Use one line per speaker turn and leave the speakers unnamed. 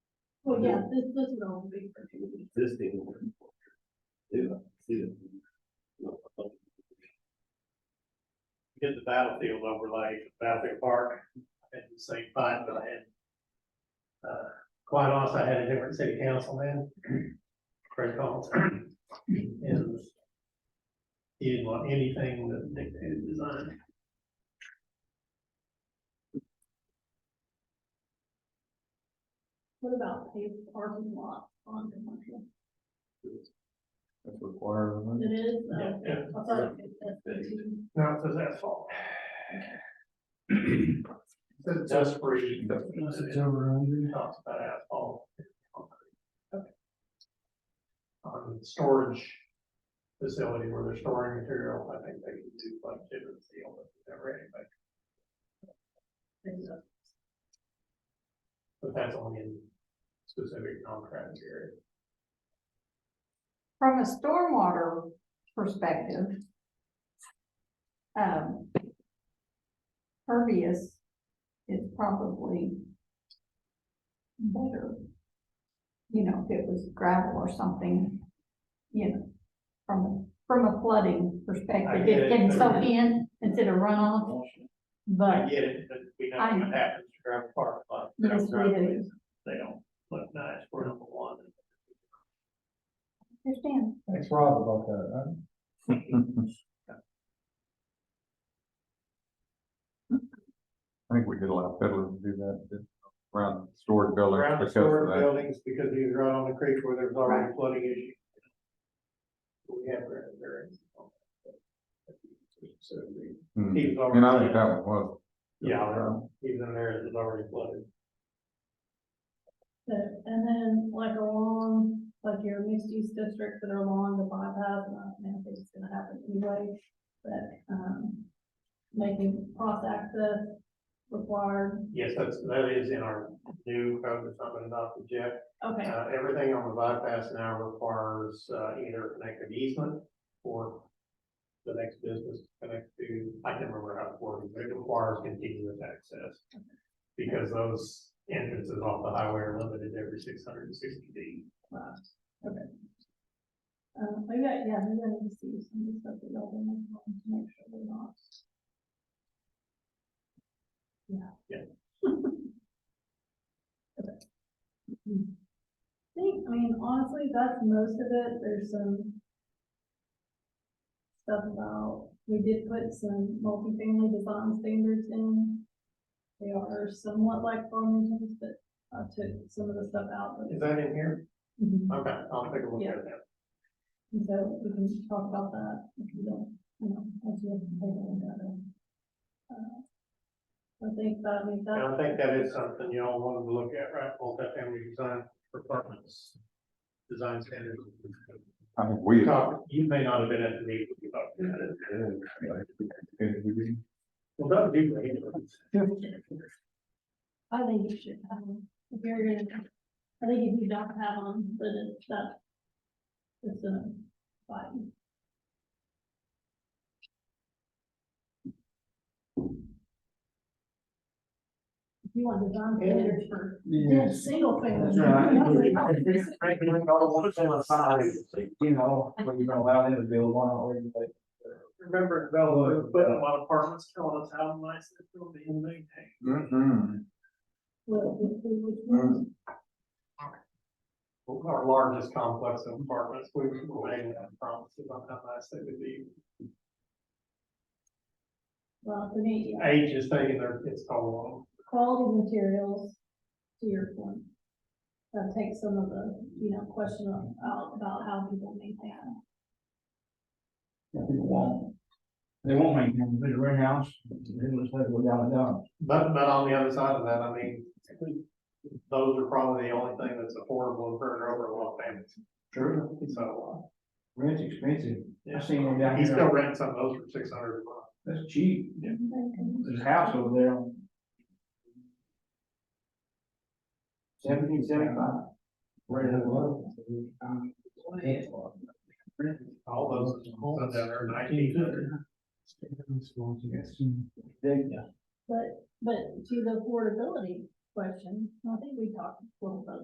yeah, this, this would all be for two weeks.
Existing. Do, do.
did the battlefield overlay, battlefield park, at the same time, but I had. Uh, quite honestly, I had a different city council then, Craig Collins. And he didn't want anything that dictated design.
What about paved parking lot on commercial?
That's required, isn't it?
It is,
Yeah,
uh,
yeah.
I thought it was SBT.
No, it says asphalt. Says dust free.
It's over under.
Talks about asphalt. On storage facility where they're storing material, I think they can do like different seal, but never anybody. But that's only in specific contract area.
From a stormwater perspective, um, pervious is probably better. You know, if it was gravel or something, you know, from, from a flooding perspective,
get it.
it can soak in instead of runoff.
I
But
get it, but we know
I-
what happens to gravel park, but.
Yes, we do.
They don't look nice for number one.
I understand,
Thanks, Rob, about that, huh? I think we did allow peddlers to do that, did, around storage buildings
Ground
because of
storage
that.
buildings, because he was right on the creek where there was already flooding issue. We have ground variance. So,
Hmm.
he was
And I think
already,
that one was.
yeah, he was in there, it was already flooded.
But- And then like along, like your mixed use districts that are along the bypass, and I don't know if it's gonna happen anyway, but, um, making cross access required,
Yes, that's, that is in our new code that's not been adopted yet.
okay,
Uh, everything on the bypass now requires, uh, either connected easement or the next business to connect to, I can't remember how it works, but it requires continuous access. Because those entrances off the highway are limited every six hundred and sixty feet.
uh, maybe, I- yeah, maybe I need to see some of the stuff that y'all want to make sure we're not. Yeah.
Yeah.
Okay. I think, I mean, honestly, that's most of it, there's some stuff about, we did put some multifamily design standards in. They are somewhat like Farmington's, but I took some of the stuff out, but
Is that in here?
Mhm.
Okay, I'll take a look at that.
And so we can talk about that if you don't, you know, as you have to take on that. uh, I think that, I mean,
And
that,
I think that is something y'all wanted to look at, right? Multifamily design for apartments, design standards.
I think we,
Talk- You may not have been at the meeting, we talked about it.
I
Well, that would be great.
I think you should have, them. if you're gonna, I think if you don't have them, then it's that. It's a fine. If you want design standards for,
Yeah.
just single family.
That's right. Frankly, all one to the side, you know, when you're gonna allow them to build one or you like.
Remember, Bella, but a lot of apartments telling us how nice it's gonna be and maintained.
Mm-hmm.
Well, if we would want
Our largest complex of apartments, we were making that promises on how nice they would be.
Well, the need, yeah,
Age is taking their, it's all
quality materials, to your point. That takes some of the, you know, question of- out about how people maintain them.
People won't. They won't make them, they rent a house, they must have go down and down.
But, but on the other side of that, I mean, those are probably the only thing that's affordable for an overall family.
True.
So,
Rent's expensive.
yeah,
I seen one down
he's still
here,
renting some of those for six hundred a month.
that's cheap.
Yeah.
There's a house over there. Seventeen seventy-five. Right at the level.
All those, ones that are nineteen hundred.
But, but to the affordability question, I think we talked a little bit